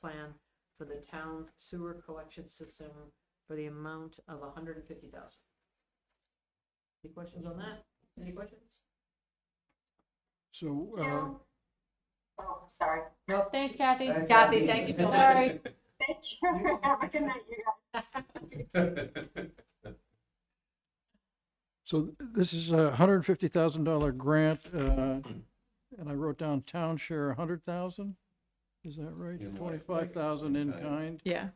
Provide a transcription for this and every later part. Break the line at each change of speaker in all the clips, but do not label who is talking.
plan for the town's sewer collection system for the amount of hundred and fifty thousand. Any questions on that? Any questions?
So, uh,
No. Oh, sorry.
No,
Thanks, Kathy.
Kathy, thank you so much.
Sorry.
Thank you. Have a good night, you guys.
so th- this is a hundred and fifty thousand dollar grant, uh, and I wrote down town share a hundred thousand? Is that right?
In what?
Twenty-five thousand in
Like, uh,
kind?
Yeah.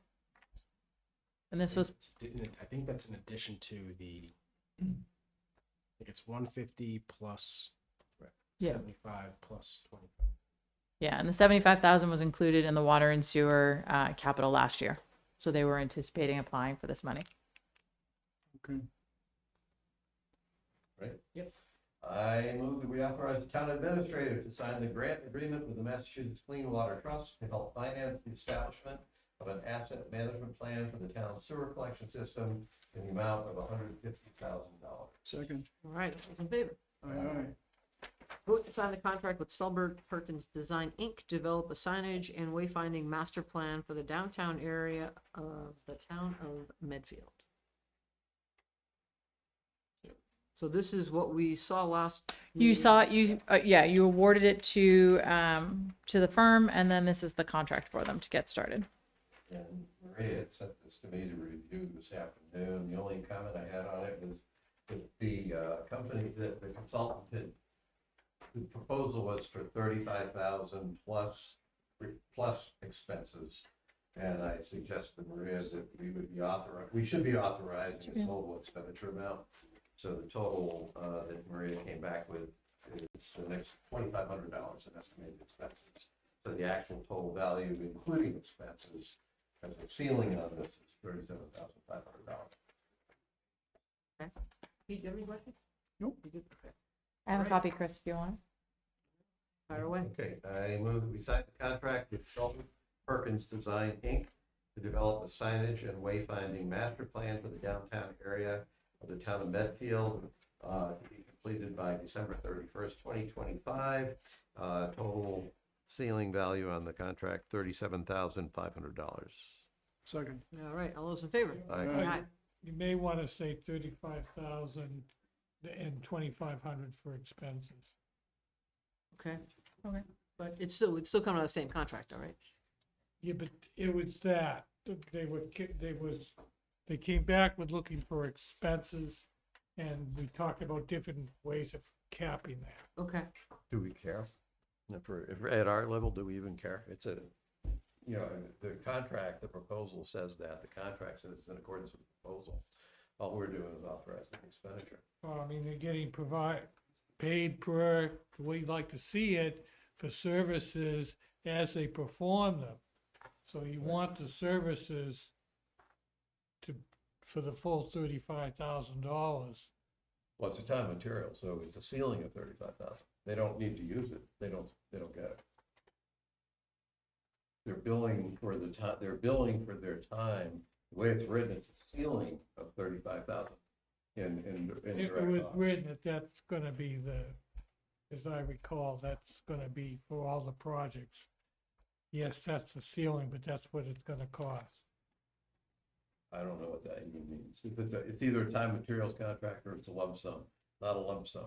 And this was,
It's- didn't it- I think that's in addition to the, I think it's one fifty plus
Yeah.
seventy-five plus twenty-five.
yeah, and the seventy-five thousand was included in the water and sewer, uh, capital last year. So they were anticipating applying for this money.
Okay.
Right?
Yep.
I move that we authorize the town administrator to sign the grant agreement with the Massachusetts Clean Water Trust to help finance the establishment of an asset management plan for the town's sewer collection system in the amount of hundred and fifty thousand dollars.
Second.
All right, all those in favor?
Aye, aye.
Vote to sign the contract with Sulbur Perkins Design, Inc., develop a signage and wayfinding master plan for the downtown area of the town of Medfield. So this is what we saw last.
You
meeting.
saw, it. you, uh, yeah, you awarded it to, um, to the firm and then this is the contract for them to get started.
And Maria had sent this to me to review this afternoon. The only comment I had on it was that the uh, company, that the consultant had, the proposal was for thirty-five thousand plus, plus expenses. And I suggested to Maria that we would be authorized, we should be authorizing a total expenditure amount. So the total uh, that Maria came back with is the next twenty-five hundred dollars in estimated expenses. So the actual total value, including expenses, as a ceiling on this is thirty-seven thousand five hundred dollars.
Pete, do you have any questions?
Nope.
You good? Okay.
I have a copy, Chris, if you want.
Fire away.
Okay, I move that we sign the contract with Sullivan Perkins Design, Inc. to develop a signage and wayfinding master plan for the downtown area of the town of Medfield, uh, to be completed by December thirty-first, twenty twenty-five. Uh, total ceiling value on the contract, thirty-seven thousand five hundred dollars.
Second.
All right, all those in favor?
Aye.
Aye.
You may want to say thirty-five thousand and twenty-five hundred for expenses.
Okay.
Okay.
But it's still, it's still coming out of the same contract, all right?
Yeah, but it was that, they were, ki- they was, they came back with looking for expenses, and we talked about different ways of capping that.
Okay.
Do we care? If we're, if we're at our level, do we even care? It's a, you know, the contract, the proposal says that, the contract says it's in accordance with the proposal. All we're doing is authorizing the expenditure.
Well, I mean, they're getting provide, paid per, the way you'd like to see it, for services as they perform them. So you want the services to, for the full thirty-five thousand dollars.
Well, it's a time and material, so it's a ceiling of thirty-five thousand. They don't need to use it. They don't, they don't get it. They're billing for the time, they're billing for their time. The way it's written, it's a ceiling of thirty-five thousand. And, and.
It was written that that's gonna be the, as I recall, that's gonna be for all the projects. Yes, that's the ceiling, but that's what it's gonna cost.
I don't know what that even means. If It's, a- it's either a time materials contract or it's a lump sum, not a lump sum.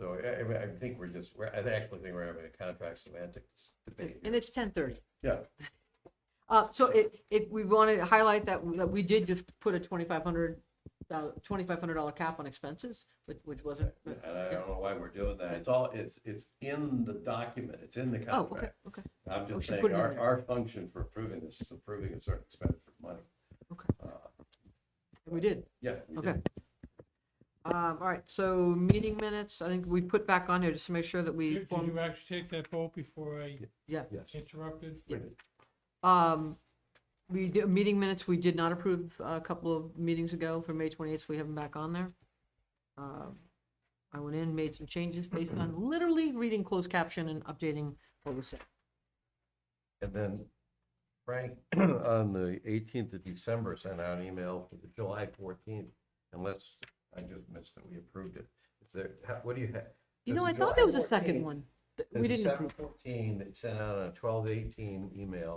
So I, I- I think we're just, we're, I actually think we're having a contract semantics debate.
And it's ten thirty.
Yeah,
Uh, so if, if we want to highlight that, that we did just put a twenty-five hundred, uh, twenty-five hundred dollar cap on expenses, which, which wasn't.
and I don't know why we're doing that. It's all, it's, it's in the document. It's in the
Oh, okay,
contract.
okay.
I'm
We
just
should put it
saying,
in
our,
there.
our function for approving this is approving a certain expenditure of money.
Okay.
Uh,
We did.
Yeah. we did.
Okay. Um, all right, so meeting minutes, I think we put back on here just to make sure that we
Did did
form,
you actually take that vote before I
yeah.
Yes.
interrupted?
Um, we did, meeting minutes, we did not approve uh, a couple of meetings ago for May twenty-eighth, we have them back on there. Um, I went in, made some changes based on literally reading closed caption and updating what was said.
And then Frank, on the eighteenth of December, sent out an email for the July fourteenth, unless I just missed that we approved it. Is there, how- what do you have?
You
does
know,
the
I thought
July
there was a
14th
second one. we didn't approve.
Seven fourteen, they sent out a twelve eighteen email